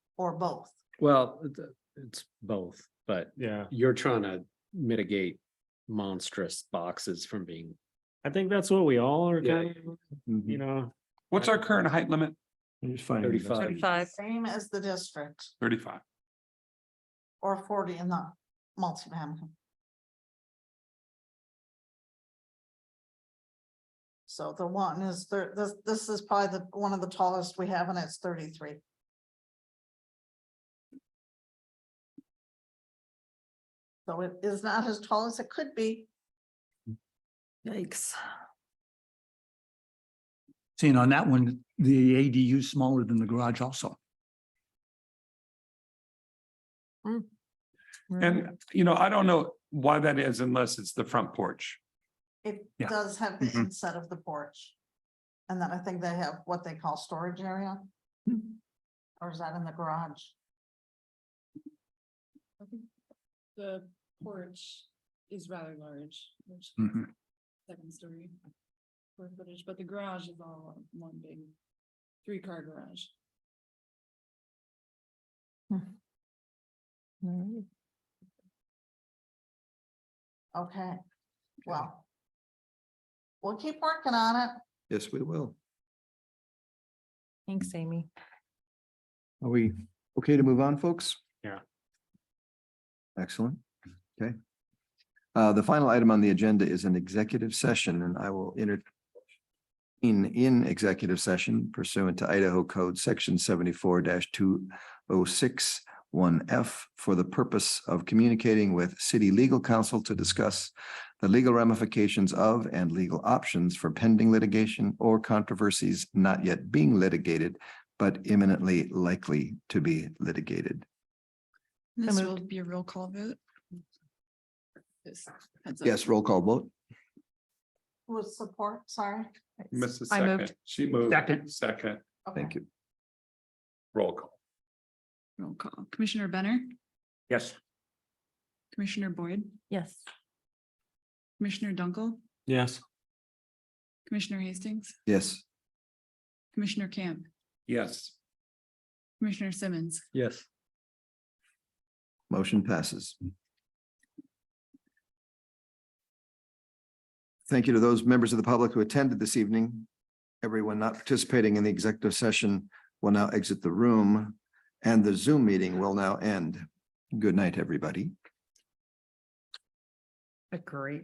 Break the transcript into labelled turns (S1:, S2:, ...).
S1: or both.
S2: Well, it- uh, it's both, but
S3: Yeah,
S2: you're trying to mitigate monstrous boxes from being.
S3: I think that's what we all are
S2: Yeah. Mm-hmm.
S3: kind of, you know.
S4: What's our current height limit?
S2: Thirty-five.
S5: Thirty-five.
S1: Same as the district
S4: Thirty-five.
S1: or forty in the multifamily. So the one is thir- this, this is probably the, one of the tallest we have and it's thirty-three. So it is not as tall as it could be.
S5: Yikes.
S6: Seeing on that one, the ADU is smaller than the garage also.
S5: Mm-hmm.
S4: And, you know, I don't know why that is unless it's the front porch.
S1: It
S6: Yeah.
S1: does have the
S4: Mhm.
S1: inset of the porch. And then I think they have what they call storage area. Or is that in the garage?
S7: The porch is rather large, which
S6: Mhm.
S7: second story. square footage, but the garage is all one big three car garage.
S1: Okay, well. We'll keep working on it.
S8: Yes, we will.
S5: Thanks, Amy.
S8: Are we okay to move on, folks?
S3: Yeah.
S8: Excellent. Okay. Uh, the final item on the agenda is an executive session and I will enter in, in executive session pursuant to Idaho Code Section seventy-four two oh six one F for the purpose of communicating with city legal counsel to discuss the legal ramifications of and legal options for pending litigation or controversies not yet being litigated but imminently likely to be litigated.
S7: This will
S5: moved.
S7: be a real call vote. Just heads up.
S8: Yes, roll call vote.
S1: With support, sorry.
S4: Mrs.
S5: I
S4: Second,
S5: moved.
S4: she moved.
S6: Second.
S4: Second,
S1: Okay.
S8: Thank you.
S4: roll call.
S7: Roll call. Commissioner Benner,
S3: Yes.
S7: Commissioner Boyd,
S5: Yes.
S7: Commissioner Dunkel,
S3: Yes.
S7: Commissioner Hastings,
S8: Yes,
S7: Commissioner Camp,
S4: Yes.
S7: Commissioner Simmons.
S2: Yes.
S8: motion passes. Thank you to those members of the public who attended this evening. Everyone not participating in the executive session will now exit the room and the Zoom meeting will now end. Good night, everybody.
S5: Agree.